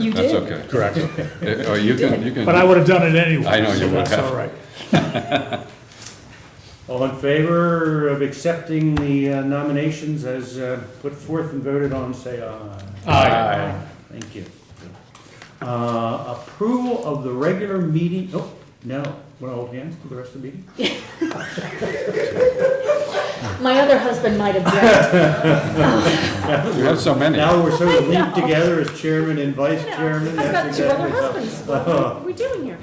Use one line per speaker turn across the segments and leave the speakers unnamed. You
That's
did.
okay.
Correct.
Eh, Oh, you can, you can.
But I would have done it anyway.
I know
so
you would
That's
have.
all right.
All in favor of accepting the uh, nominations as uh, put forth and voted on, say aye.
Aye.
Thank you. Uh, Approval of the regular meeting, oh, no, want to hold hands for the rest of the meeting?
My other husband might object.
You have so many.
Now we're sort of linked together as chairman and vice chairman.
I've got
That's
two other
exactly
husbands.
how-
What are we doing here?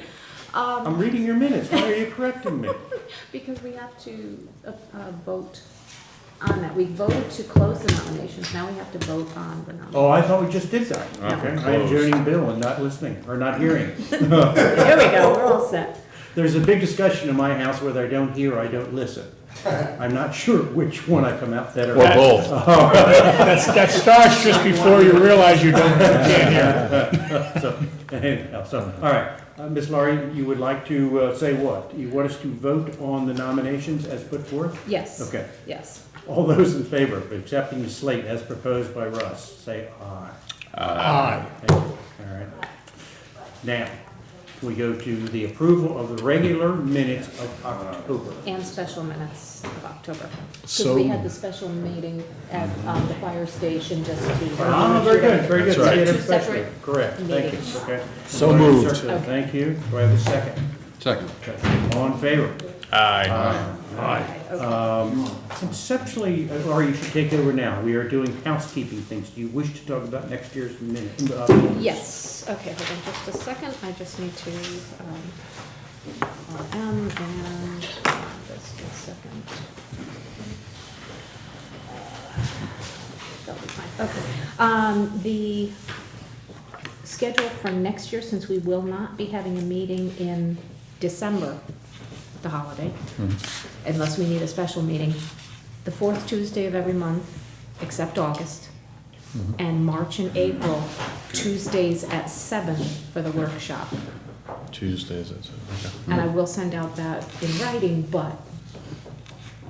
Um,
I'm reading your minutes, why are you correcting me?
because we have to, uh, uh, vote on that. We voted to close the nominations, now we have to vote on the nominations.
Oh, I thought we just did that.
Yeah.
Okay, I am joining Bill and not listening, or not hearing.
There we go, we're all set.
There's a big discussion in my house whether I don't hear or I don't listen. I'm not sure which one I come out better
Or
at.
both. That's, that starts just before you realize you don't, can't hear.
So, anyhow, so, all right. Uh, Ms. Laurie, you would like to uh, say what? You want us to vote on the nominations as put forth?
Yes.
Okay.
Yes.
All those in favor of accepting the slate as proposed by Russ, say aye.
Uh,
Aye.
Thank you. All right. Now, we go to the approval of the regular minutes of October.
And special minutes of October. Because
So-
we had the special meeting at, um, the fire station just to.
Ah, very good, very good.
That's right.
We had a
Two
special-
separate
Correct, thank you,
meetings.
okay.
So moved.
Thank you. Do I have a second?
Second.
Okay. All in favor?
Aye.
Aye.
Okay.
Conceptually, uh, Laurie, you should take over now. We are doing housekeeping things. Do you wish to talk about next year's minute? uh,
Yes, okay, hold on just a second, I just need to, um, um, and, just a second. That'll be fine, okay. Um, the schedule for next year, since we will not be having a meeting in December, the holiday, unless we need a special meeting, the fourth Tuesday of every month, except August, and March and April, Tuesdays at seven for the workshop.
Tuesdays, that's it. okay.
And I will send out that in writing, but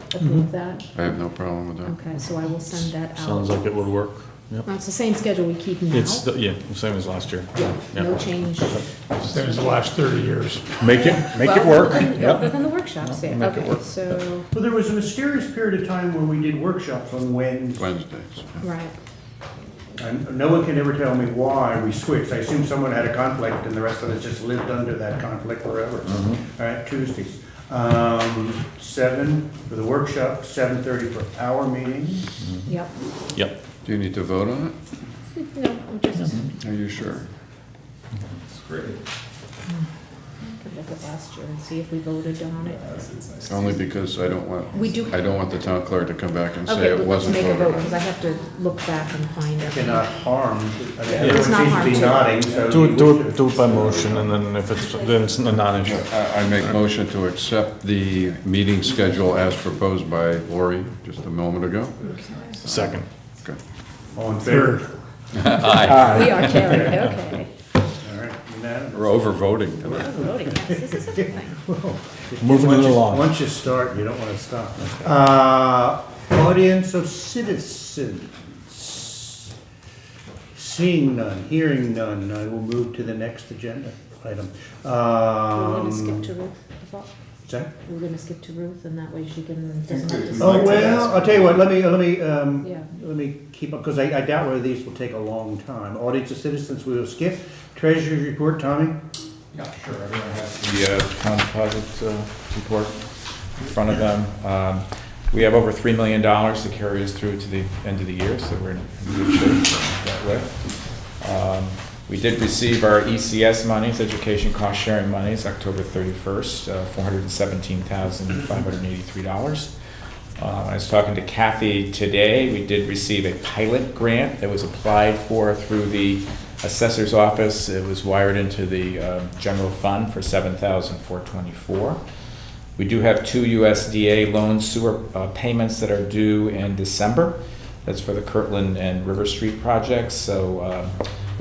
Mm-hmm.
approve that?
I have no problem with that.
Okay, so I will send that out.
Sounds like it would work. Yep.
Now, it's the same schedule we keep now.
It's, the- yeah, same as last year.
Yeah, no
Yep.
change.
Same as the last thirty years.
Make it, make
Well,
it work.
other than- Other
Yep.
than the workshops, yeah,
Make it
okay,
work.
so,
Well, there was a mysterious period of time where we did workshops on when,
Wednesdays.
right,
and no one can ever tell me why we switched. I assume someone had a conflict and the rest of us just lived under that conflict forever.
Mm-hmm.
All right, Tuesdays. Um, Seven for the workshop, seven thirty for our meeting.
yep.
Yep.
Do you need to vote on it?
No, I'm just,
Are you sure?
I could look at last year and see if we voted on it.
Only because I don't want,
We do-
I don't want the town clerk to come back and say
Okay,
it
let's
wasn't
make a
voted
vote,
on.
because I have to look back and find it.
Cannot harm. I mean,
It's not
Everyone seems to be
harm
nodding, so.
Do it,
you
do
wish
it,
to-
do it by motion and then if it's, then it's a non-issue.
I I make motion to accept the meeting schedule as proposed by Lori just a moment ago.
Second.
Okay.
All in favor?
We are carried, okay.
All right, unanimous.
We're over voting tonight.
Voting, Oh, yes, this is a good thing.
Moving
Once
it
you-
along.
Once you start, you don't want to stop. Uh, Audience of citizens. Seeing none, hearing none, I will move to the next agenda item.
We're gonna skip
Um,
to Ruth, I thought.
sorry?
We're gonna skip to Ruth, and that way she can, doesn't have to.
Oh, well, I'll tell you what, let me, let me, um,
Yeah.
let me keep up, because I I doubt whether these will take a long time. Audience of citizens, we will skip. Treasurer's report, Tommy?
Yeah, sure, everyone has the uh, town deposit uh, report in front of them. Um, We have over $3 million to carry us through to the end of the year, so we're in good shape that way. Um, We did receive our ECS monies, education cost sharing monies, October 31st, uh, $417,583. Uh, I was talking to Kathy today, we did receive a pilot grant that was applied for through the assessor's office. It was wired into the um, general fund for $7,424. We do have two USDA loan sewer uh, payments that are due in December. That's for the Kirtland and River Street projects, so um,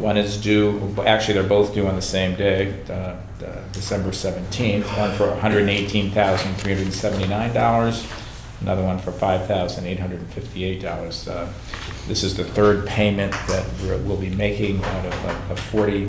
one is due, actually, they're both due on the same day, uh, uh, December 17th, one for $118,379, another one for five thousand eight hundred and fifty-eight Uh, dollars. This is the third payment that we're- we'll be making out of a- a forty